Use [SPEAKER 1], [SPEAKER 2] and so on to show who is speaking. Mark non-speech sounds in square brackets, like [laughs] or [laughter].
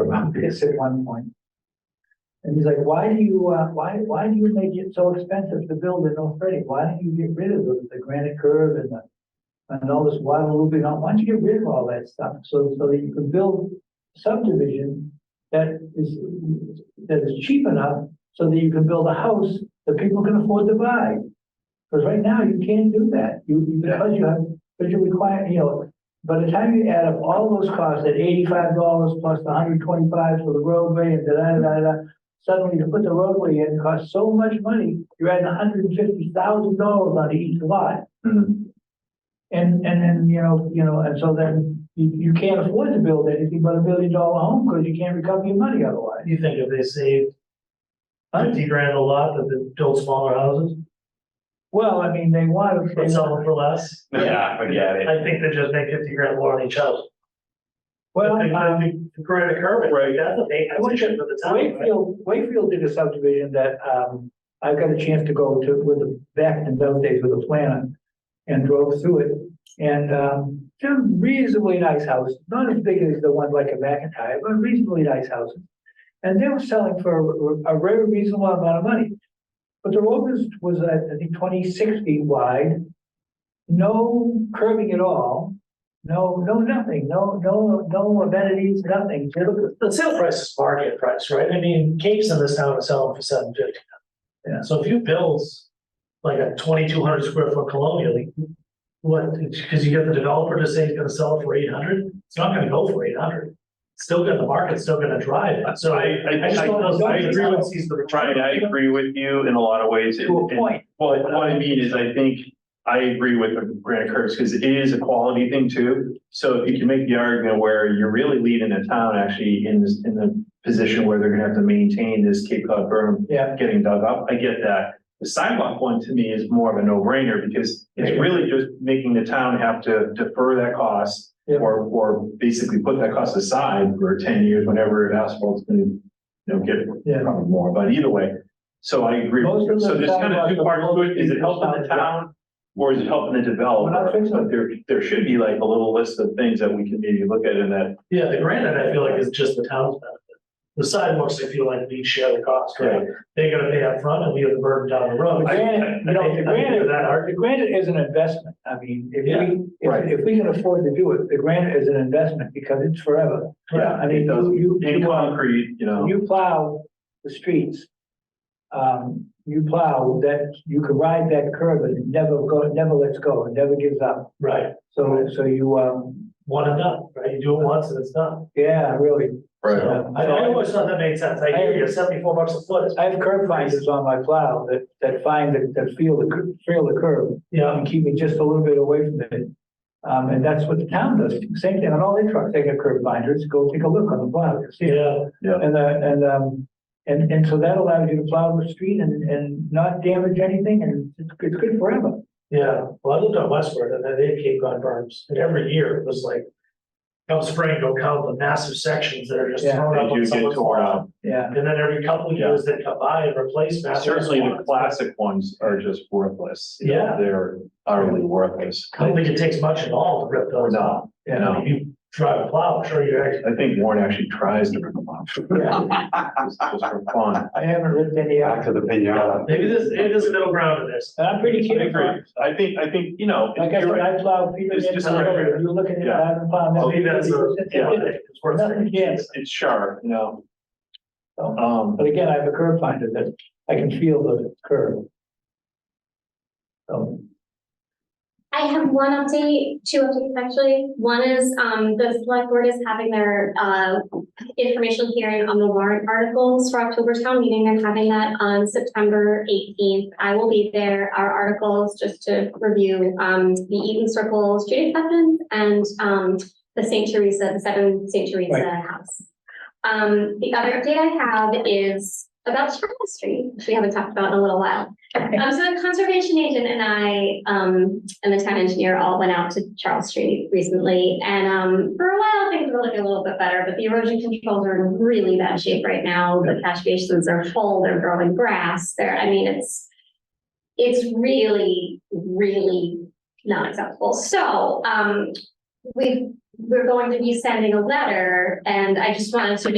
[SPEAKER 1] about this at one point. And he's like, why do you, uh, why, why do you make it so expensive to build in North Reading? Why don't you get rid of the, the granite curve and the, and all this water looping on? Why don't you get rid of all that stuff? So, so that you can build subdivision that is, that is cheap enough so that you can build a house that people can afford to buy. Because right now, you can't do that. You, you- because you have, because you require, you know, by the time you add up all those costs, at eighty-five dollars plus the hundred twenty-five for the roadway and da-da-da-da, suddenly to put the roadway in costs so much money, you're adding hundred and fifty thousand dollars on each lot. And, and then, you know, you know, and so then you, you can't afford to build anything but a million dollar home because you can't recover your money otherwise.
[SPEAKER 2] You think if they saved fifty grand a lot, that they build smaller houses,
[SPEAKER 1] Well, I mean, they want to.
[SPEAKER 2] but sell them for less?
[SPEAKER 3] Yeah, forget it.
[SPEAKER 2] I think they just make fifty grand more on each house.
[SPEAKER 1] Well,
[SPEAKER 2] I think- I
[SPEAKER 1] um,
[SPEAKER 2] think the Granite curve,
[SPEAKER 3] Right.
[SPEAKER 2] that's a big, I wish it for the town. right?
[SPEAKER 1] Wakefield, Wakefield did a subdivision that, um, I got a chance to go to with the, back in those days with a planner. And drove through it and, um, they're reasonably nice houses, not as big as the one like a McIntyre, but reasonably nice houses. And they were selling for a a very reasonable amount of money. But the road was, was I think twenty-six feet wide. No curving at all, no, no, nothing, no, no, no amenities, nothing. You look at
[SPEAKER 2] The sale price is market price, right? I mean, capes in this town are selling for seven fifty.
[SPEAKER 1] Yeah.
[SPEAKER 2] So if you build like a twenty-two hundred square foot colonial, you- what, because you get the developer to say he's gonna sell it for eight hundred, it's not gonna go for eight hundred. Still gonna, the market's still gonna drive it, so.
[SPEAKER 3] I, I,
[SPEAKER 2] just don't know-
[SPEAKER 3] I, I agree with,
[SPEAKER 2] Sees the
[SPEAKER 3] Brian, I agree with you in a lot of ways. and-
[SPEAKER 1] To a
[SPEAKER 3] and-
[SPEAKER 1] point.
[SPEAKER 3] Well, what I mean is I think I agree with the granite curves because it is a quality thing too. So if you can make the argument where you're really leading a town actually in this, in the position where they're gonna have to maintain this Cape Cod berm
[SPEAKER 1] Yeah.
[SPEAKER 3] getting dug up, I get that. The sidewalk one to me is more of a no-brainer because it's really just making the town have to defer that cost
[SPEAKER 1] Yeah.
[SPEAKER 3] or, or basically put that cost aside for ten years, whenever asphalt's gonna, you know, get
[SPEAKER 1] Yeah.
[SPEAKER 3] probably more, but either way. So I agree. with
[SPEAKER 1] Most of
[SPEAKER 3] you. So
[SPEAKER 1] the
[SPEAKER 3] there's kind of
[SPEAKER 1] sidewalks
[SPEAKER 3] two
[SPEAKER 1] are
[SPEAKER 3] parts to it. Is it
[SPEAKER 1] located
[SPEAKER 3] helping the
[SPEAKER 1] south.
[SPEAKER 3] town? Or is it helping the
[SPEAKER 1] We're not
[SPEAKER 3] developer?
[SPEAKER 1] fixing
[SPEAKER 3] But there, there should be like a little list of things that we can maybe look at in that.
[SPEAKER 2] Yeah, the granite, I feel like is just the town's benefit. The sidewalks, I feel like we share the cost, right? They're gonna pay up front, and we have the burden down the road.
[SPEAKER 1] The granite, you know, the granite,
[SPEAKER 2] That argument.
[SPEAKER 1] the granite is an investment. I mean, if
[SPEAKER 2] Yeah,
[SPEAKER 1] we,
[SPEAKER 3] right.
[SPEAKER 1] if, if we can afford to do it, the granite is an investment because it's forever.
[SPEAKER 3] Yeah,
[SPEAKER 1] I mean,
[SPEAKER 3] it does.
[SPEAKER 1] you, you,
[SPEAKER 3] In
[SPEAKER 1] you, uh,
[SPEAKER 3] concrete, you know,
[SPEAKER 1] you plow the streets. Um, you plow that, you can ride that curve and it never go, it never lets go, it never gives up.
[SPEAKER 2] Right,
[SPEAKER 1] So, so you, um,
[SPEAKER 2] one and done, right? You do it once and it's done.
[SPEAKER 1] yeah, really.
[SPEAKER 3] right.
[SPEAKER 2] So, I, I always thought that made sense. I hear you, seventy-four bucks a foot is,
[SPEAKER 1] I have curb finders on my plow that, that find, that, that feel the, cur- feel the curve.
[SPEAKER 2] you know,
[SPEAKER 1] and um, keep me just a little bit away from it. Um, and that's what the town does. Same thing on all their trucks. They got curb binders. Go take a look on the plow. You'll see it.
[SPEAKER 2] yeah,
[SPEAKER 1] And, uh, and, um, and, and so that allows you to plow the street and, and not damage anything and it's, it's good forever.
[SPEAKER 2] yeah. Well, I lived on Westward and then they had Cape Cod berms and every year it was like, come spring, go count the massive sections that are just
[SPEAKER 1] Yeah.
[SPEAKER 2] thrown up
[SPEAKER 3] They
[SPEAKER 2] on
[SPEAKER 3] do get
[SPEAKER 2] someone's
[SPEAKER 3] torn
[SPEAKER 2] lawn.
[SPEAKER 3] up.
[SPEAKER 1] Yeah.
[SPEAKER 2] And then every couple of
[SPEAKER 3] Yeah.
[SPEAKER 2] years they come by and replace massive.
[SPEAKER 3] Certainly the
[SPEAKER 2] lawns.
[SPEAKER 3] classic ones are just worthless. you know,
[SPEAKER 2] Yeah.
[SPEAKER 3] They're utterly worthless.
[SPEAKER 2] I don't think it takes much at all to rip those off.
[SPEAKER 3] No,
[SPEAKER 1] Yeah.
[SPEAKER 3] no.
[SPEAKER 2] You drive a plow, I'm sure you're actually.
[SPEAKER 3] I think Warren actually tries to rip them
[SPEAKER 1] [laughs]
[SPEAKER 3] off. Just just for fun.
[SPEAKER 1] I haven't ripped any out.
[SPEAKER 3] to the pinata.
[SPEAKER 2] Maybe this, maybe there's a middle ground in this.
[SPEAKER 1] And I'm pretty
[SPEAKER 3] I
[SPEAKER 1] keen.
[SPEAKER 3] agree. I think, I think, you know.
[SPEAKER 1] Like I
[SPEAKER 3] you're
[SPEAKER 1] said,
[SPEAKER 3] right.
[SPEAKER 1] I plow Peter
[SPEAKER 3] It's just like-
[SPEAKER 1] You're looking at, it, I haven't plowed.
[SPEAKER 3] Oh,
[SPEAKER 2] Maybe that's a, yeah, it's worth
[SPEAKER 1] Nothing
[SPEAKER 2] it.
[SPEAKER 1] against.
[SPEAKER 3] It's sharp, you know.
[SPEAKER 1] Oh.
[SPEAKER 3] Um,
[SPEAKER 1] But again, I have a curb finder that I can feel the curve. So.
[SPEAKER 4] I have one update, two updates actually. One is, um, the select board is having their, uh, information hearing on the warrant articles for October town meeting. They're having that on September eighteenth. I will be there. Our articles, just to review, um, the Eaton Circle street acceptance and, um, the St. Teresa, the seven St. Teresa house. Um, the other update I have is about Charlotte Street, which we haven't talked about in a little while. Um, so the conservation agent and I, um, and the town engineer all went out to Charles Street recently. And, um, for a while, things were looking a little bit better, but the erosion controls are in really bad shape right now. The catch basins are full, they're growing grass, they're, I mean, it's, it's really, really not acceptable. So, um, we, we're going to be sending a letter and I just wanted to